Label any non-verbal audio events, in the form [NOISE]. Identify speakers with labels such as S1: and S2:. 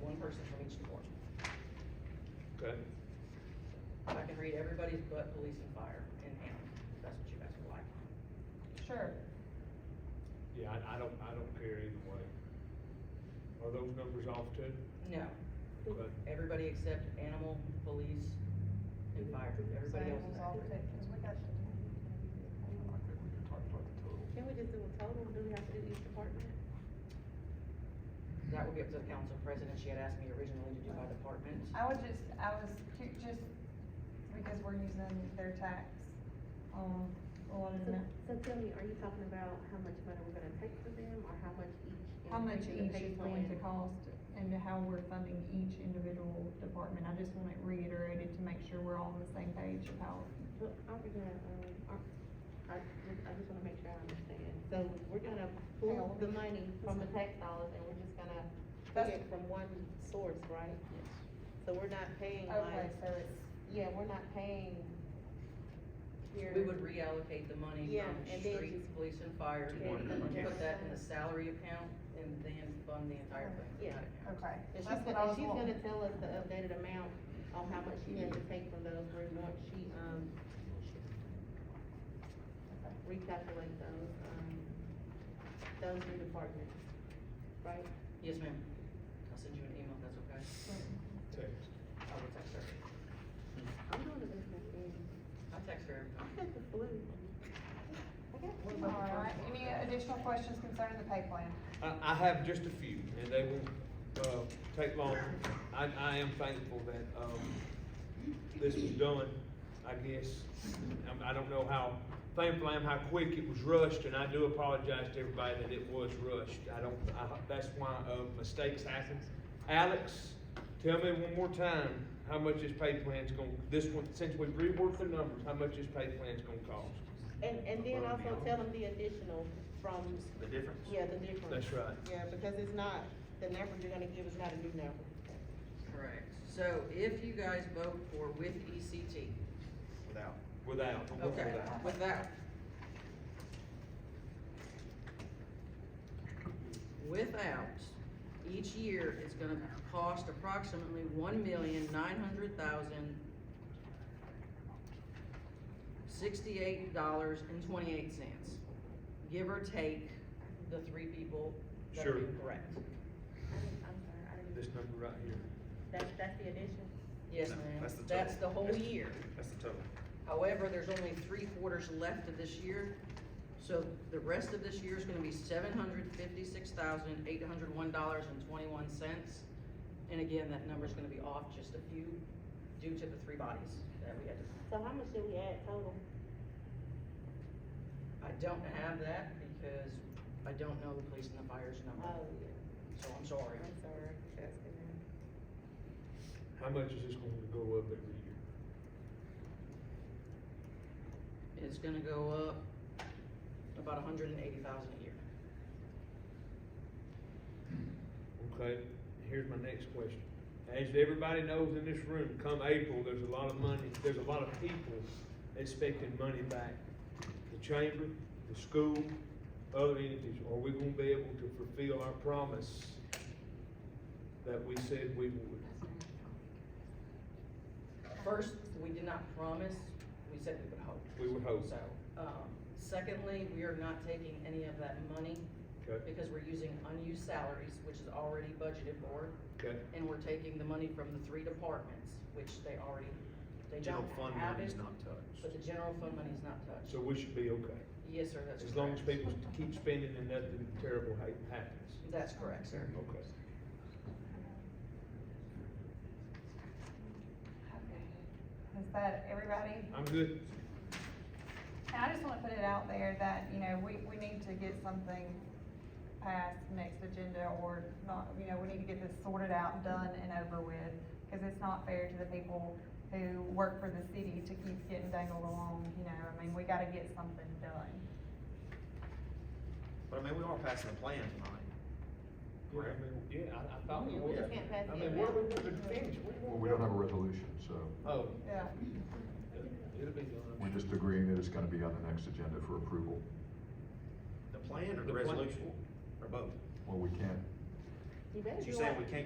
S1: one person from each department.
S2: Okay,
S1: I can read everybody's but police and fire and him, if that's what you guys would like.
S3: Sure.
S2: yeah, I, I don't, I don't care either way. Are those numbers off too?
S1: No,
S2: Okay,
S1: everybody except animal, police, and fire, everybody else is
S3: Samuel's all
S1: active.
S3: good, 'cause we got
S4: I think we can talk about the total.
S5: Can we just do a total, do we have to do each department?
S1: That would be up to the council president, she had asked me originally to do by department.
S3: I would just, I was, ju- just because we're using their tax, um, a lot of
S5: So
S3: that.
S5: so tell me, are you talking about how much money we're gonna take for them, or how much each?
S3: How much each
S5: individual pay
S3: is going to
S5: plan?
S3: cost and how we're funding each individual department. I just want it reiterated to make sure we're all on the same page of how.
S5: Well, aren't we gonna, um, aren't, I just, I just wanna make sure I understand, so we're gonna pull the money from the tax dollars, and we're just gonna
S3: That's-
S5: pay it from one source, right? Yes. So we're not paying
S3: Okay,
S5: like,
S3: so it's,
S5: yeah, we're not paying here.
S1: We would reallocate the money
S5: Yeah,
S1: from
S5: and then
S1: streets, police and fire,
S5: To
S1: and
S5: one
S1: put that in the
S5: department.
S1: salary account, and then fund the entire thing.
S5: Yeah.
S3: okay.
S5: And she's
S3: That's what
S5: gonna,
S3: I
S5: and
S3: was
S5: she's gonna
S3: wanting.
S5: tell us the updated amount on how much she has to take from those, where once she, um, recalculate those, um, those new departments, right?
S1: Yes, ma'am, I'll send you an email, if that's okay,
S2: text.
S1: I will text her,
S5: I'm doing the best I can. [LAUGHS]
S1: I text her every time.
S5: I got the flu. I got the flu.
S3: All right, any additional questions concerning the pay plan?
S2: I, I have just a few, and they will, uh, take long. I, I am thankful that, um, this was done, I guess. Um, I don't know how, thankful I am how quick it was rushed, and I do apologize to everybody that it was rushed. I don't, I, that's why, uh, mistakes happen. Alex, tell me one more time, how much this pay plan's gonna, this one, since we've reworked the numbers, how much this pay plan's gonna cost?
S5: And, and then also tell them the additional from,
S4: The difference?
S5: yeah, the difference.
S2: That's right.
S5: Yeah, because it's not, the number you're gonna give is not a new number.
S1: Correct, so if you guys vote for with ECT,
S4: Without.
S2: Without.
S1: okay,
S2: Without.
S1: with that. Without, each year it's gonna cost approximately one million nine hundred thousand sixty-eight dollars and twenty-eight cents, give or take the three people that are
S2: Sure.
S1: correct.
S5: I'm sorry, I
S2: This number right here.
S5: That's, that's the addition?
S1: Yes,
S4: No,
S1: ma'am,
S4: that's the total.
S1: that's the whole
S4: That's-
S1: year.
S4: That's the total.
S1: However, there's only three quarters left of this year, so the rest of this year is gonna be seven hundred fifty-six thousand, eight hundred one dollars and twenty-one cents. And again, that number's gonna be off just a few due to the three bodies that we had. to-
S5: So how much did we add total?
S1: I don't have that because I don't know the police and the fire's number,
S5: Oh, yeah,
S1: so I'm sorry.
S5: I'm sorry, that's gonna,
S2: How much is this going to go up every year?
S1: It's gonna go up about a hundred and eighty thousand a year.
S2: Okay, here's my next question. As everybody knows in this room, come April, there's a lot of money, there's a lot of people expecting money back. The chamber, the school, other entities, are we gonna be able to fulfill our promise that we said we would?
S1: First, we did not promise, we said we would hope.
S2: We would hope,
S1: So, um, secondly, we are not taking any of that money
S2: okay,
S1: because we're using unused salaries, which is already budgeted for,
S2: okay,
S1: and we're taking the money from the three departments, which they already, they
S4: General
S1: don't
S4: fund
S1: have
S4: money is
S1: it,
S4: not touched.
S1: But the general fund money is not touched.
S2: so we should be okay,
S1: Yes, sir, that's correct.
S2: as long as people keep spending and nothing terrible ha- happens.
S1: That's correct, sir.
S2: Okay.
S3: Is that everybody?
S2: I'm good.
S3: And I just wanna put it out there that, you know, we, we need to get something passed next agenda or not, you know, we need to get this sorted out, done and over with. Cause it's not fair to the people who work for the city to keep getting dangled along, you know, I mean, we gotta get something done.
S4: But I mean, we are passing a plan tonight.
S2: Yeah, I mean, yeah, I, I thought we
S5: we
S2: were.
S5: just can't pass
S2: I
S5: it
S2: mean, where
S5: around.
S2: we wanted to finish,
S6: Well, we don't have a resolution, so
S2: Oh,
S3: Yeah.
S2: it'll be done.
S6: we're just agreeing that it's gonna be on the next agenda for approval.
S4: The plan or
S2: The
S4: the
S2: plan.
S4: resolution, or both?
S6: Well, we can't
S5: You better
S4: So
S5: do
S4: you're saying
S5: it.
S4: we can't